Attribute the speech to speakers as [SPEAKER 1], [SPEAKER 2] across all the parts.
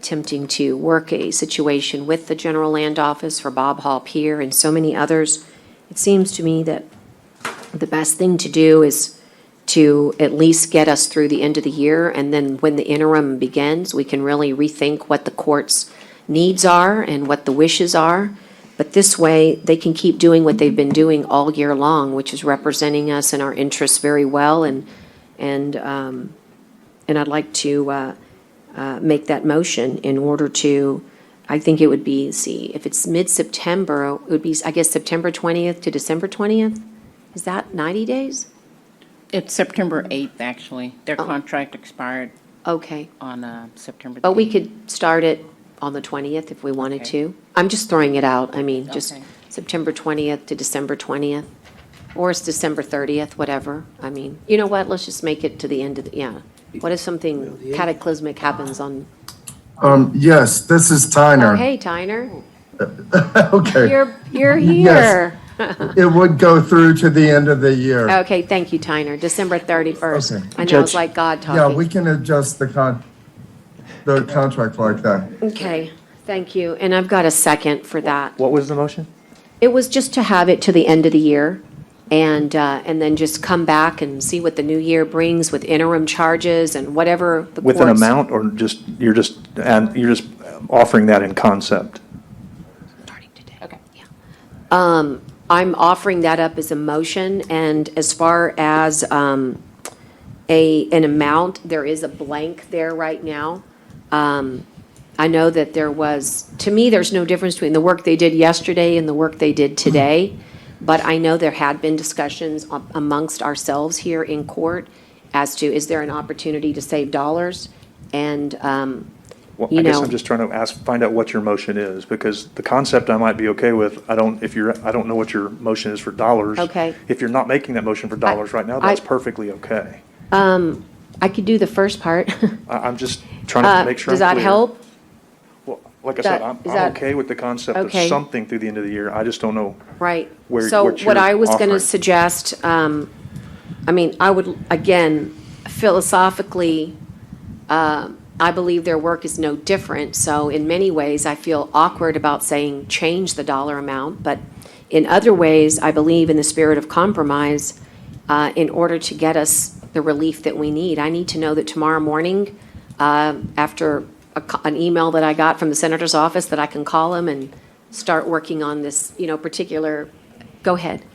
[SPEAKER 1] attempting to work a situation with the general land office for Bob Hall Pier and so many others, it seems to me that the best thing to do is to at least get us through the end of the year, and then when the interim begins, we can really rethink what the court's needs are and what the wishes are. But this way, they can keep doing what they've been doing all year long, which is representing us and our interests very well, and, and, um, and I'd like to, uh, uh, make that motion in order to, I think it would be, see, if it's mid-September, it would be, I guess, September 20th to December 20th? Is that 90 days?
[SPEAKER 2] It's September
[SPEAKER 1] Mm-hmm.
[SPEAKER 2] 8th, actually.
[SPEAKER 1] Oh.
[SPEAKER 2] Their contract expired
[SPEAKER 1] Okay,
[SPEAKER 2] on uh, September.
[SPEAKER 1] but we
[SPEAKER 2] 8th.
[SPEAKER 1] could start it on the 20th if we wanted
[SPEAKER 2] Okay.
[SPEAKER 1] to. I'm just throwing it out, I mean, just
[SPEAKER 2] Okay.
[SPEAKER 1] September 20th to December 20th, or it's December 30th, whatever. I mean, you know what, let's just make it to the end of, the yeah. What if something cataclysmic happens on,
[SPEAKER 3] Um, yes, this is
[SPEAKER 1] oh,
[SPEAKER 3] Tyner.
[SPEAKER 1] hey, Tyner,
[SPEAKER 3] Okay,
[SPEAKER 1] you're, you're
[SPEAKER 3] Yes.
[SPEAKER 1] here.
[SPEAKER 3] it would go through to the end of the year.
[SPEAKER 1] Oh, Okay, thank you, Tyner, December 31st.
[SPEAKER 3] Okay.
[SPEAKER 1] I know, it's
[SPEAKER 4] Judge-
[SPEAKER 1] like God
[SPEAKER 3] Yeah, we
[SPEAKER 1] talking.
[SPEAKER 3] can adjust the con, the contract like that.
[SPEAKER 1] Okay, thank you, and I've got a second for that.
[SPEAKER 4] What was the motion?
[SPEAKER 1] It was just to have it to the end of the year and, uh, and then just come back and see what the new year brings with interim charges and whatever the courts.
[SPEAKER 4] With an amount or just, you're just, and you're just offering that in concept?
[SPEAKER 1] Starting today. Okay. Yeah. Um, I'm offering that up as a motion and as far as, um, a, an amount, there is a blank there right now. Um, I know that there was, to me, there's no difference between the work they did yesterday and the work they did today, but I know there had been discussions a- amongst ourselves here in court as to, is there an opportunity to save dollars? And, um,
[SPEAKER 4] Well,
[SPEAKER 1] You
[SPEAKER 4] I guess
[SPEAKER 1] know-
[SPEAKER 4] I'm just trying to ask, find out what your motion is, because the concept I might be okay with, I don't, if you're, I don't know what your motion is for dollars.
[SPEAKER 1] Okay.
[SPEAKER 4] If you're not making that motion for dollars right now,
[SPEAKER 1] I-
[SPEAKER 4] that's perfectly okay.
[SPEAKER 1] I could do the first part.
[SPEAKER 4] I, I'm just trying to make sure
[SPEAKER 1] Uh,
[SPEAKER 4] I'm
[SPEAKER 1] Does that
[SPEAKER 4] clear.
[SPEAKER 1] help?
[SPEAKER 4] Well, Like I
[SPEAKER 1] That-
[SPEAKER 4] said, I'm,
[SPEAKER 1] is
[SPEAKER 4] I'm
[SPEAKER 1] that-
[SPEAKER 4] okay with the concept of
[SPEAKER 1] Okay.
[SPEAKER 4] something through the end of the year, I just don't know.
[SPEAKER 1] Right.
[SPEAKER 4] where-
[SPEAKER 1] So
[SPEAKER 4] what
[SPEAKER 1] what
[SPEAKER 4] you're
[SPEAKER 1] I was going to
[SPEAKER 4] offering.
[SPEAKER 1] suggest, um, I mean, I would, again, philosophically, um, I believe their work is no different. So in many ways, I feel awkward about saying change the dollar amount. But in other ways, I believe in the spirit of compromise, uh, in order to get us the relief that we need. I need to know that tomorrow morning, uh, after a co- an email that I got from the senator's office, that I can call him and start working on this, you know, particular, go ahead.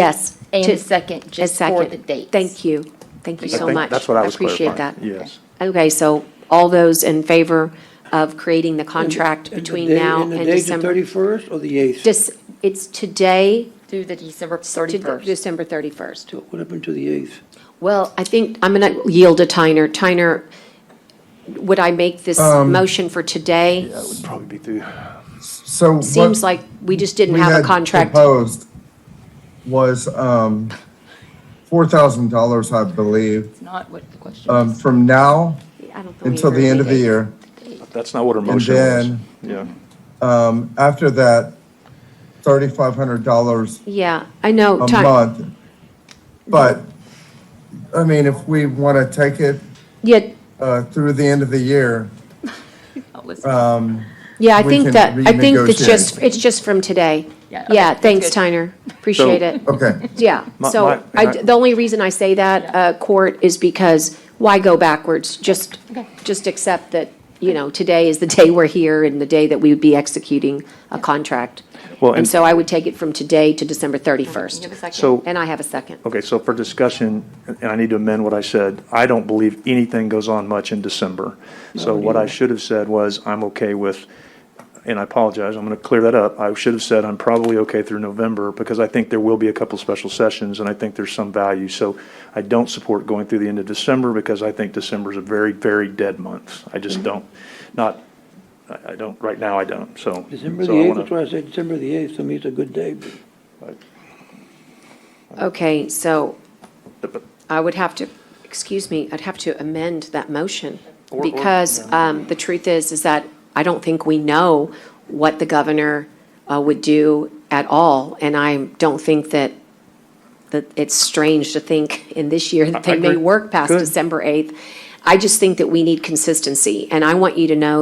[SPEAKER 1] Yes.
[SPEAKER 5] And
[SPEAKER 1] to-
[SPEAKER 5] a second,
[SPEAKER 1] a
[SPEAKER 5] just for
[SPEAKER 1] second.
[SPEAKER 5] the dates.
[SPEAKER 1] Thank you. Thank you
[SPEAKER 4] I
[SPEAKER 1] so
[SPEAKER 4] think
[SPEAKER 1] much.
[SPEAKER 4] That's what I was clarifying.
[SPEAKER 1] appreciate that.
[SPEAKER 4] Yes.
[SPEAKER 1] Okay, so all those in favor of creating the contract
[SPEAKER 6] And the
[SPEAKER 1] between
[SPEAKER 6] day-
[SPEAKER 1] now and
[SPEAKER 6] the
[SPEAKER 1] December?
[SPEAKER 6] date, the 31st or the 8th?
[SPEAKER 1] Just, it's today
[SPEAKER 5] Through the December
[SPEAKER 1] to
[SPEAKER 5] 31st.
[SPEAKER 1] December 31st.
[SPEAKER 6] What happened to the 8th?
[SPEAKER 1] Well, I think I'm going to yield to Tyner. Tyner, would I make this
[SPEAKER 6] Um,
[SPEAKER 1] motion for today?
[SPEAKER 4] That would probably be through.
[SPEAKER 3] So what
[SPEAKER 1] Seems like we just didn't
[SPEAKER 3] we
[SPEAKER 1] have
[SPEAKER 3] had
[SPEAKER 1] a contract.
[SPEAKER 3] proposed was, um, four thousand dollars, I believe,
[SPEAKER 5] It's not what the question
[SPEAKER 3] um,
[SPEAKER 5] is.
[SPEAKER 3] from now
[SPEAKER 1] I don't think we
[SPEAKER 3] until
[SPEAKER 1] agreed.
[SPEAKER 3] the end of the year.
[SPEAKER 4] That's not what her motion was.
[SPEAKER 3] then-
[SPEAKER 4] Yeah.
[SPEAKER 3] Um, after that, thirty-five hundred dollars
[SPEAKER 1] Yeah, I know.
[SPEAKER 3] a
[SPEAKER 1] Ty-
[SPEAKER 3] month. But, I mean, if we want to take it
[SPEAKER 1] Yeah,
[SPEAKER 3] uh, through the end of the year,
[SPEAKER 5] Oh, listen.
[SPEAKER 1] yeah, I
[SPEAKER 3] We
[SPEAKER 1] think
[SPEAKER 3] can
[SPEAKER 1] that, I think it's
[SPEAKER 3] renegotiate.
[SPEAKER 1] just, it's just from today.
[SPEAKER 5] Yeah, okay,
[SPEAKER 1] Yeah,
[SPEAKER 5] that's
[SPEAKER 1] thanks,
[SPEAKER 5] good.
[SPEAKER 1] Tyner. Appreciate it.
[SPEAKER 3] okay.
[SPEAKER 1] Yeah,
[SPEAKER 4] My- my-
[SPEAKER 1] so I,
[SPEAKER 4] and I-
[SPEAKER 1] the only reason I say that, uh, court, is because why go backwards? Just, just accept that, you know, today is the day we're here and the day that we would be executing a contract.
[SPEAKER 4] Well,
[SPEAKER 1] And
[SPEAKER 4] and-
[SPEAKER 1] so I would take it from today to December
[SPEAKER 5] You have a
[SPEAKER 1] 31st.
[SPEAKER 5] second?
[SPEAKER 4] So.
[SPEAKER 1] And I have a second.
[SPEAKER 4] Okay, so for discussion, and I need to amend what I said, I don't believe anything goes on much in December. So what I should have said was, I'm okay with, and I apologize, I'm going to clear that up. I should have said, I'm probably okay through November, because I think there will be a couple special sessions, and I think there's some value. So I don't support going through the end of December, because I think December's a very, very dead month. I just don't, not, I I don't, right now, I don't, so.
[SPEAKER 6] December
[SPEAKER 4] so
[SPEAKER 6] the
[SPEAKER 4] I
[SPEAKER 6] 8th,
[SPEAKER 4] wanna-
[SPEAKER 6] that's why I said December the 8th, to me it's a good day. but-
[SPEAKER 1] Okay, so I would have to, excuse me, I'd have to amend that motion.
[SPEAKER 4] Or- or-
[SPEAKER 1] Because um, the truth is, is that I don't think we know what the governor uh, would do at all. And I don't think that, that it's strange to think in this year that
[SPEAKER 4] I- I
[SPEAKER 1] they may
[SPEAKER 4] agree.
[SPEAKER 1] work past
[SPEAKER 4] Good.
[SPEAKER 1] December 8th. I just think that we need consistency, and I want you to know